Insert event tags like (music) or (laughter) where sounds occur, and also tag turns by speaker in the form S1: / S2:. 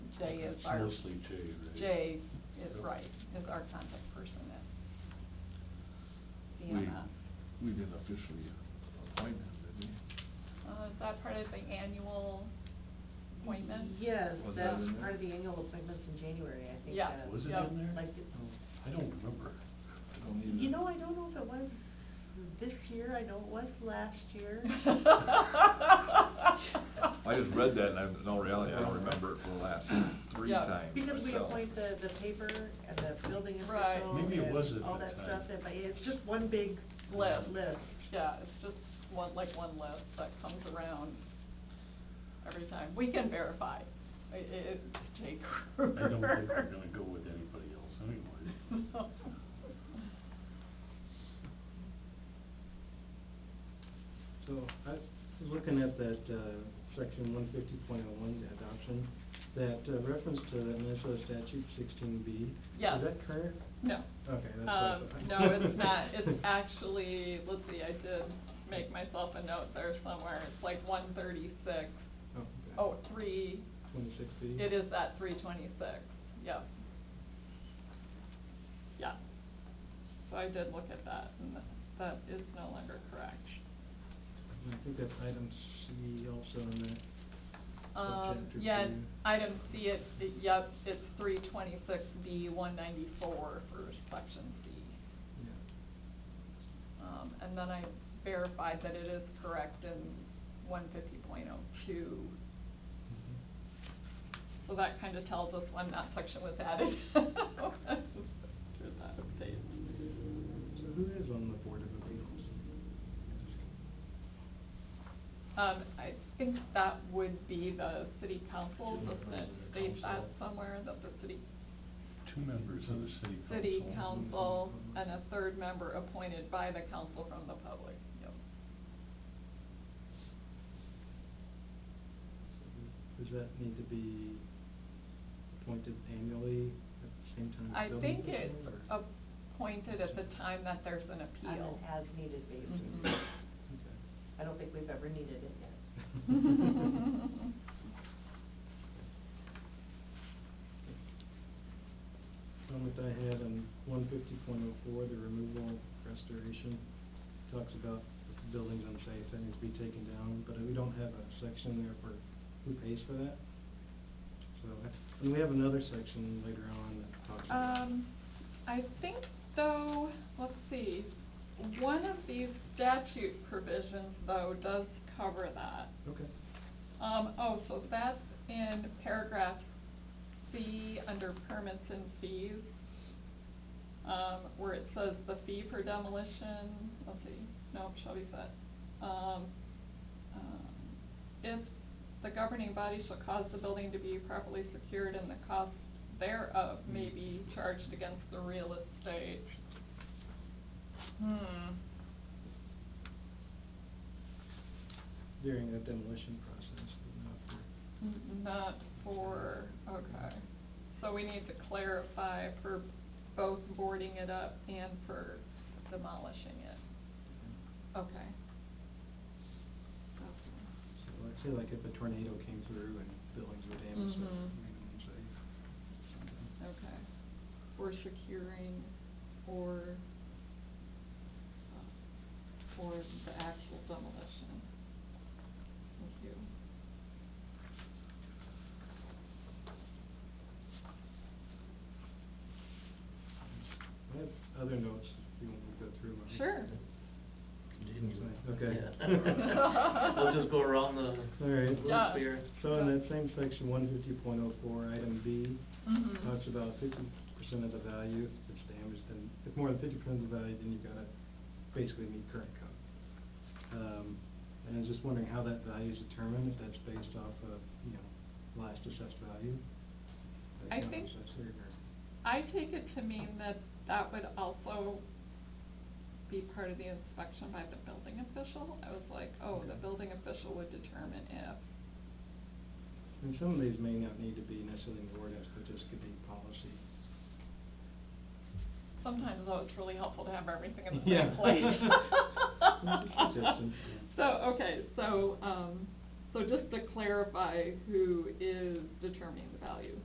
S1: Jay is
S2: It's
S1: our,
S2: Mostly Jay, right?
S1: Jay is
S2: Yep.
S1: right, is our contact person at
S3: We-
S1: DMS.
S3: We didn't officially appoint him, did we?
S1: Uh, is that part of the annual appointment? (laughs)
S4: Yes,
S3: Was that
S4: that's
S3: in there?
S4: part of the annual appointments in January, I think.
S1: Yeah.
S4: uh,
S2: Was it
S1: Yeah.
S2: in there?
S4: Like, it-
S2: I don't remember.
S3: I don't either.
S4: you know, I don't know if it was this year, I know it was last year.
S3: I just read that and I, in all reality, I don't remember it for the last three
S1: Yeah.
S3: times
S4: Because we
S3: myself.
S4: appoint the, the paper and the building
S1: Right.
S4: official
S2: Maybe it was
S4: and
S2: at
S4: all
S2: that
S4: that stuff,
S2: time.
S4: and like, it's just one big
S1: List.
S4: list.
S1: Yeah, it's just one, like one list that comes around every time. We can verify. I- i- It's Jay
S2: I
S1: Kruger.
S2: don't think we're gonna go with anybody else anyway.
S1: (laughs)
S5: So I was looking at that, uh, section one fifty point oh one, the adoption, that uh, reference to Minnesota statute sixteen B.
S1: Yeah.
S5: Is that current?
S1: No.
S5: Okay, that's. what I
S1: Um,
S5: thought.
S1: no, it's not. It's
S5: (laughs)
S1: actually, let's see, I did make myself a note there somewhere. It's like one thirty-six,
S5: Oh,
S1: oh, three,
S5: Twenty-six B.
S1: it is that three twenty-six, yep. Yeah. So I did look at that, and that- that is no longer correct.
S5: I think that's item C also in that.
S1: Um,
S5: Subchapter
S1: yeah,
S5: two.
S1: item C, it, it- yep, it's three twenty-six B, one ninety-four for section C.
S5: Yeah.
S1: Um, and then I verified that it is correct in one fifty point oh two.
S5: Mhm.
S1: So that kind of tells us when that section was added. (laughs) There's that update.
S5: So who is on the Board of Appeals?
S1: Um, I think that would be the city council,
S2: Two
S1: doesn't it
S2: members of the
S1: state that
S2: council.
S1: somewhere, that the city,
S2: Two members of the city council.
S1: city council and a third member appointed by the council from the public, yep.
S5: Does that need to be appointed annually at the same time? as
S1: I
S5: building
S1: think it's
S5: official, or-
S1: appointed at the time that there's an
S4: On
S1: appeal.
S4: an as-needed basis.
S1: Mhm.
S5: Okay.
S1: Mm-hmm.
S4: I don't think we've ever needed it yet.
S1: (laughs)
S5: Comment I had on one fifty point oh four, the removal and restoration, talks about if the building's unsafe, that needs to be taken down, but we don't have a section there for who pays for that. So, I- and we have another section later on that talks about.
S1: (laughs) Um, I think though, let's see, one of these statute provisions though does cover that.
S5: Okay.
S1: Um, oh, so that's in paragraph C under permits and fees, um, where it says the fee for demolition, let's see, no, shall be set. Um, um, if the governing body shall cause the building to be properly secured and the cost thereof may be charged against the real estate. Hmm.
S5: During the demolition process, but not for,
S1: N- Not for, okay. So we need to clarify for both boarding it up and for demolishing it. Okay.
S5: so like, say like if a tornado came through and buildings were damaged, that
S1: Mhm.
S5: made them unsafe.
S1: Okay. Or securing, or, uh, or the actual demolition. Thank you.
S5: I have other notes, if you want me to go through them.
S1: Sure.
S5: Okay. (laughs)
S1: (laughs)
S6: We'll just go around the
S5: All right.
S1: Yeah.
S6: loop here.
S5: So in that same section, one fifty point oh four, item B,
S1: Mhm.
S5: talks about fifty percent of the value, if it's damaged, then, if more than fifty percent of the value, then you've gotta basically meet current code. Um, and I was just wondering how that value is determined, if that's based off of, you know, last assessed value?
S1: I
S5: Like, not
S1: think-
S5: assessed, or-
S1: I take it to mean that that would also be part of the inspection by the building official. I was like, oh, the
S5: Okay.
S1: building official would determine if,
S5: And some of these may not need to be necessarily in the ordinance, but just could be policy.
S1: sometimes though, it's really helpful to have everything in the
S5: Yeah.
S1: same place.
S5: Suggestion.
S1: So, okay, so, um, so just to clarify who is determining the value.